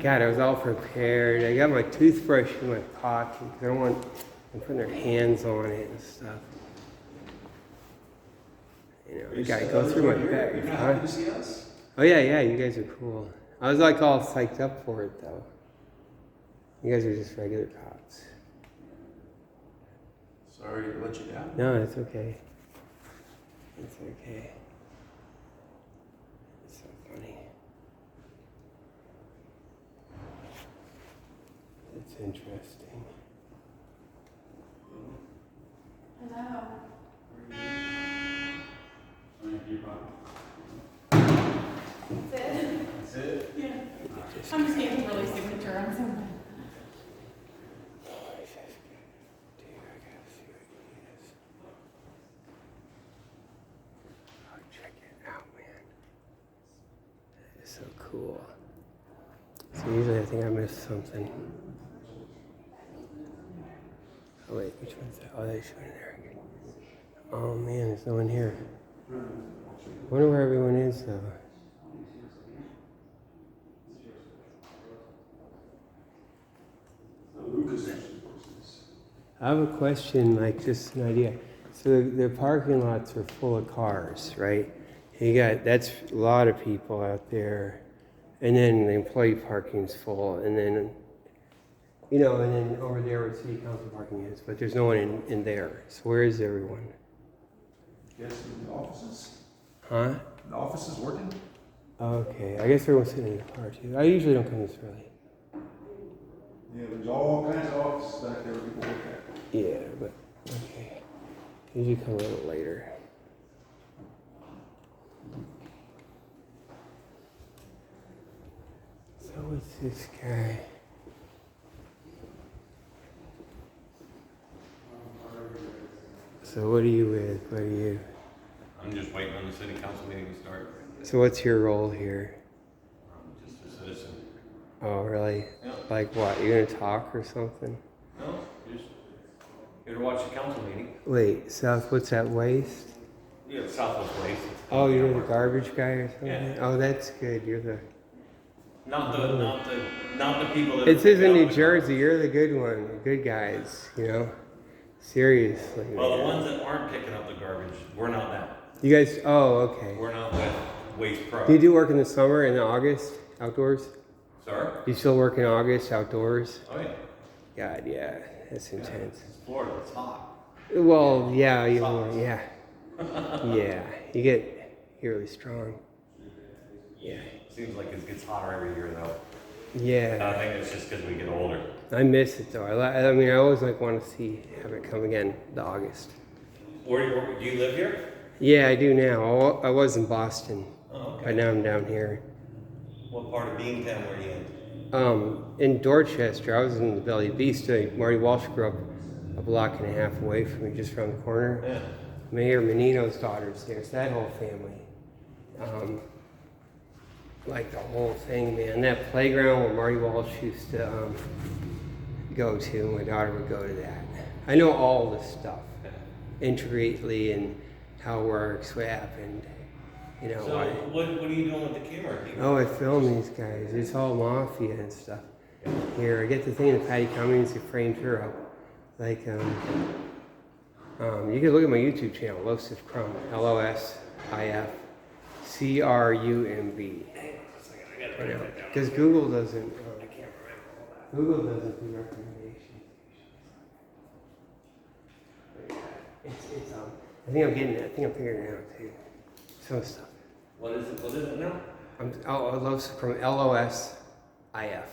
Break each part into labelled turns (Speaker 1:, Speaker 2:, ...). Speaker 1: God, I was all prepared. I got my toothbrush in my pocket 'cause I don't want them putting their hands on it and stuff. You know, I
Speaker 2: Is
Speaker 1: gotta
Speaker 2: the
Speaker 1: go
Speaker 2: other
Speaker 1: through
Speaker 2: one
Speaker 1: my
Speaker 2: here? You're
Speaker 1: bag.
Speaker 2: not
Speaker 1: huh?
Speaker 2: happy to see us?
Speaker 1: Oh yeah, yeah, you guys are cool. I was like all psyched up for it though. You guys are just regular cops.
Speaker 2: Sorry to let you down.
Speaker 1: No, it's okay. It's okay. It's so funny. It's interesting.
Speaker 3: Hello. That's it.
Speaker 2: That's it?
Speaker 3: Yeah. I'm just getting really signature on something.
Speaker 1: Dude, I gotta see what he is. Oh, check it out, man. That is so cool. So usually I think I missed something. Oh wait, which one's that? Oh, that's one there. Oh man, there's no one here. I wonder where everyone is though.
Speaker 2: Lucas actually voices.
Speaker 1: I have a question, like just an idea. So the, the parking lots are full of cars, right? You got that's a lot of people out there, and then the employee parking's full, and then you know, and then over there where city council parking is, but there's no one in, in there. So where is everyone?
Speaker 2: Yes, in the offices?
Speaker 1: Huh?
Speaker 2: The office is working?
Speaker 1: Okay, I guess everyone's sitting in the car too. I usually don't come this early.
Speaker 2: Yeah, there's all kinds of offices back there people work at.
Speaker 1: Yeah, but okay. Usually come a little later. So what's this guy? So what are you with? What are you?
Speaker 4: I'm just waiting on the city council meeting to start.
Speaker 1: So what's your role here?
Speaker 4: I'm just a citizen.
Speaker 1: Oh really?
Speaker 4: Yeah.
Speaker 1: Like what? You're gonna talk or something?
Speaker 4: No, just here to watch the council meeting.
Speaker 1: Wait, South. What's that waste?
Speaker 4: Yeah, Southwest Waste.
Speaker 1: Oh, you're the garbage guy or something?
Speaker 4: Yeah.
Speaker 1: Oh, that's good. You're the.
Speaker 4: Not the, not the, not the people that.
Speaker 1: It says in New Jersey, you're the good one, the good guys, you know? Seriously.
Speaker 4: Well, the
Speaker 1: man.
Speaker 4: ones that aren't picking up the garbage, we're not that.
Speaker 1: You guys, oh, okay.
Speaker 4: We're not with Waste
Speaker 1: Do you
Speaker 4: Pro.
Speaker 1: do work in the summer and August outdoors?
Speaker 4: Sorry?
Speaker 1: You still work in August outdoors?
Speaker 4: Oh, yeah.
Speaker 1: God, yeah, that's intense.
Speaker 4: It's Florida, it's hot.
Speaker 1: Well, yeah, you know, yeah. Yeah, you get, you're really strong. Yeah.
Speaker 4: Seems like it gets hotter every year though. And
Speaker 1: Yeah.
Speaker 4: I think it's just because we get older.
Speaker 1: I miss it though. I, li- I mean, I always like want to see, have it come again, the August.
Speaker 4: Where, where, do you live here?
Speaker 1: Yeah, I do now. I wa- I was in Boston,
Speaker 4: Oh,
Speaker 1: but
Speaker 4: okay.
Speaker 1: now I'm down here.
Speaker 4: What part of Beantown were you in?
Speaker 1: Um, in Dorchester, I was in the Belly Beast. uh, Marty Walsh grew up a block and a half away from me, just around the corner.
Speaker 4: Yeah.
Speaker 1: Mayor Menino's daughter's there, so that whole family. Um, like the whole thing, man. That playground where Marty Walsh used to um, go to, my daughter would go to that. I know all this stuff intricately and how it works, what happened, you know.
Speaker 4: So
Speaker 1: why.
Speaker 4: what, what are you doing with the camera?
Speaker 1: Oh, I film these guys. It's all mafia and stuff. Here, I get the thing that Patty Cummings who framed her up. Like, um, um, you can look at my YouTube channel, Losif Crumb, L O S I F C R U M B. Because Google doesn't. Um, Google doesn't do recommendations. But yeah, it's, it's, um, I think I'm getting it. I think I'm figuring it out too. Some stuff.
Speaker 4: What is it, what is it now?
Speaker 1: I'm, oh, I love from L O S I F,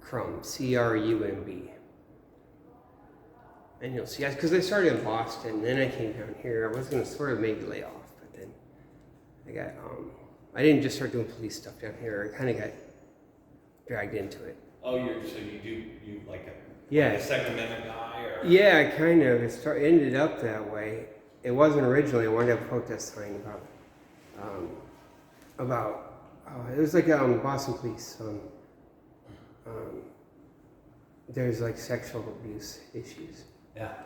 Speaker 1: crumb, C R U M B. And you'll see, because I started in Boston, then I came down here. I was gonna sort of maybe lay off, but then I got um, I didn't just start doing police stuff down here. I kind of got dragged into it.
Speaker 4: Oh, you're, so you do, you like a,
Speaker 1: Yeah,
Speaker 4: a Second Amendment guy or?
Speaker 1: Yeah, kind of. It start, ended up that way. It wasn't originally. I wanted to have a protest sign about, um, about uh, it was like um, Boston police. Um, um, there's like sexual abuse issues,
Speaker 4: Yeah.